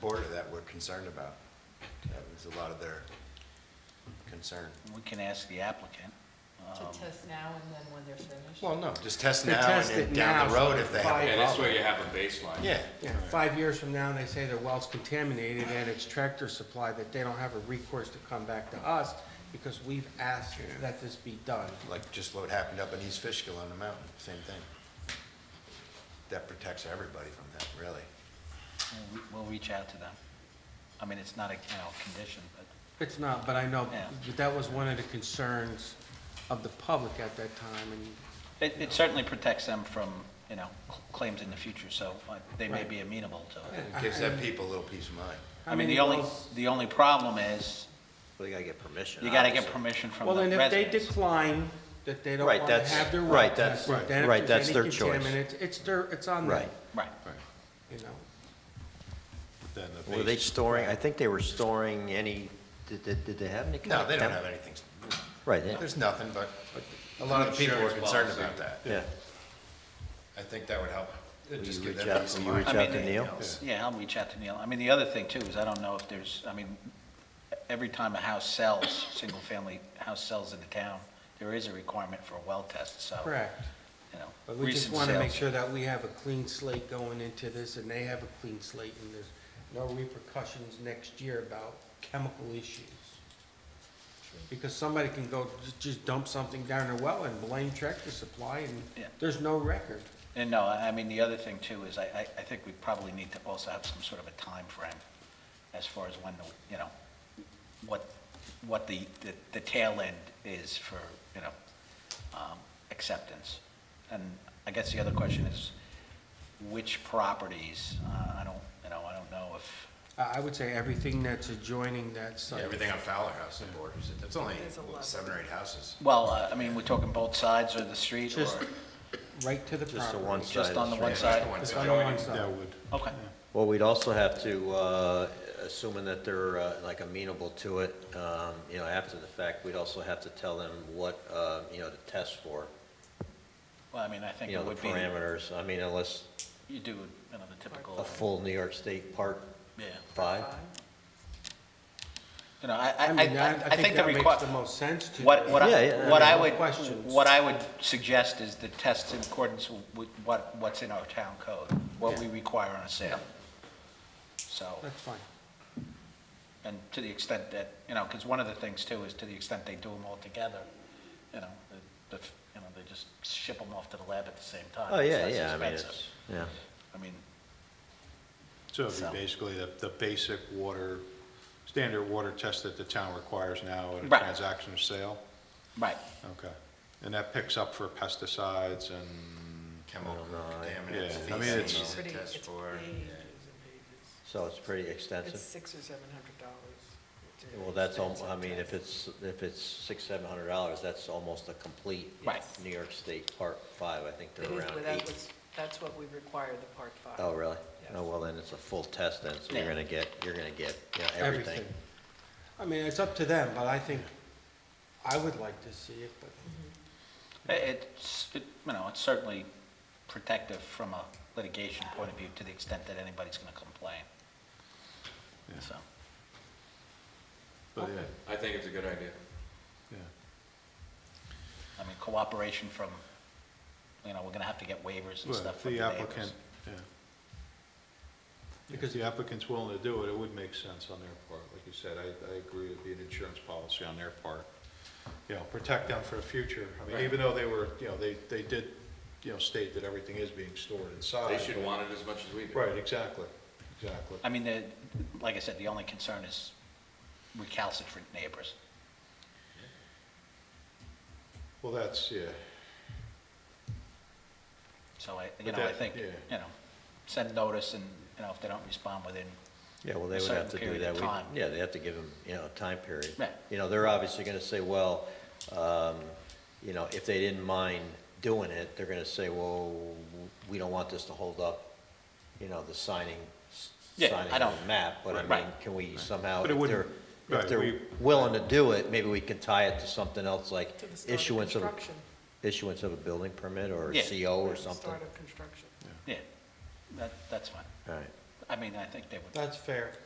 border that we're concerned about. That was a lot of their concern. We can ask the applicant. To um, test now and then when they're finished? Well, no, just test They now and test then it down the now, road if they have five- a Yeah, this way problem. you have a baseline. Yeah, Yeah, five years from now, and they say their well's contaminated and it's Tractor Supply, that they don't have a recourse to come back to us because we've asked that this be done. like just what happened up in East Fishkill on the mountain, same thing. That protects everybody from that, really. we'll- We'll reach out to them. I mean, it's not a, you know, condition, but It's not, but I know, Yeah. that that was one of the concerns of the public at that time, and it it certainly protects them from, you know, cl- claims in the future, so uh, they may be amenable to it. It gives that people a little peace of mind. how I mean, many the only, wells? the only problem is, Well, you gotta get permission. you gotta get obviously. permission from the Well, and if they residents. decline, that they don't Right, want to that's- have their well right, that's- tested, then if right, there's that's any their choice. contaminants, It's their, it's on them, Right. Right. you know. Then the Were they base- storing, I think they were storing any, did, did did they have any? kind No, of they don't temp- have anything. Right, yeah, There's nothing, but a lot of the people were Insurance concerned policy. about that. yeah. I think that would help. It'd Will just you give reach them out- peace will of you mind. reach I mean, out to Neil? Else. Yeah, I'll reach out to Neil. I mean, the other thing too is I don't know if there's, I mean, every time a house sells, single-family house sells in the town, there is a requirement for a well test, so. Correct. You know. But we just recent want to make sales. sure that we have a clean slate going into this, and they have a clean slate, and there's no repercussions next year about chemical issues. Because somebody can go, ju- just dump something down their well and blame Tractor Supply, and Yeah. there's no record. And no, I I mean, the other thing too is I, I, I think we probably need to also have some sort of a time frame as far as when, the you know, what, what the, the- the tail end is for, you know, um, acceptance. And I guess the other question is, which properties, uh, I don't, you know, I don't know if, I I would say everything that's adjoining that Yeah, site. Everything on Fowler House and borders it. That's only There's a what, lot. seven or eight houses. well, uh, I mean, we're talking both sides or the street or Just right to the property. Just the one side. just of on the one street. side? Just on the one side. Okay, Well, we'd also have to, uh, assuming that they're uh, like amenable to it, um, you know, after the fact, we'd also have to tell them what, uh, you know, to test for, well, I mean, I think you know, it the would be, parameters. I mean, unless you do, you know, the typical. a full New York State Part Yeah. Five. You know, I, I, I I, mean, I I think the that makes requirement. the most sense to. What, me. what Yeah, I, yeah, what I I mean, would, questions. what I would suggest is the test in accordance with what, what's in our town code, what we require on a sale. So, That's fine. and to the extent that, you know, because one of the things too is to the extent they do them all together, you know, the, the- you know, they just ship them off to the lab at the same time. Oh, yeah, It's less yeah, I mean, expensive. it's, yeah. I mean, So it'd be So- basically the, the basic water, standard water test that the town requires now at a Right. transaction or sale? right, Okay. And that picks up for pesticides and, Chemical Oh, Yeah, contaminants, I mean, it's- feces, Pretty- test it's for. pages and pages. So it's pretty It's extensive. six or seven hundred dollars. Well, that's, al- I mean, if it's, if it's six, seven hundred dollars, that's almost a complete Right. New York State Part Five. I think It they're is, around but eight. that was, that's what we require the part five. Oh, really? Yes. Oh, well, then it's a full test then, so you're Yeah. gonna get, you're gonna get, you know, everything. I mean, it's up to them, but I think, I would like to see it, but i- it's, it- you know, it's certainly protective from a litigation point of view to the extent that anybody's going to complain. Yeah. So. but yeah, I think it's a good idea. yeah. I mean, cooperation from, you know, we're gonna have to get waivers and Well, stuff if from the The neighbors. applicant, yeah. Because the applicant's willing to do it, it would make sense on their part. Like you said, I, I agree it'd be an insurance policy on their part. You know, protect them for the future. I mean, Right. even though they were, you know, they, they did, you know, state that everything is being stored inside. They should but- want it as much as we do. Right, exactly, exactly. I mean, the, like I said, the only concern is recalcitrant neighbors. Well, that's, yeah, So I, you But know, I that- think, yeah. you know, send notice and, you know, if they don't respond within, Yeah, well, they A would certain have to do period that. of We- time. Yeah, they have to give them, you know, a time period. Right. You know, they're obviously gonna say, well, um, you know, if they didn't mind doing it, they're gonna say, well, we don't want this to hold up, you know, the signing, s- Yeah, I signing of don't- the map, but I mean, Right. can we somehow, But it if they're, wouldn't- if right, they're we- willing to do it, maybe we can tie it to something else, like To the start of issuance of, a- construction. issuance of a building permit or a Yeah. CO or Start something. of construction. yeah, that, that's fine. All right. I mean, I think they would That's fair.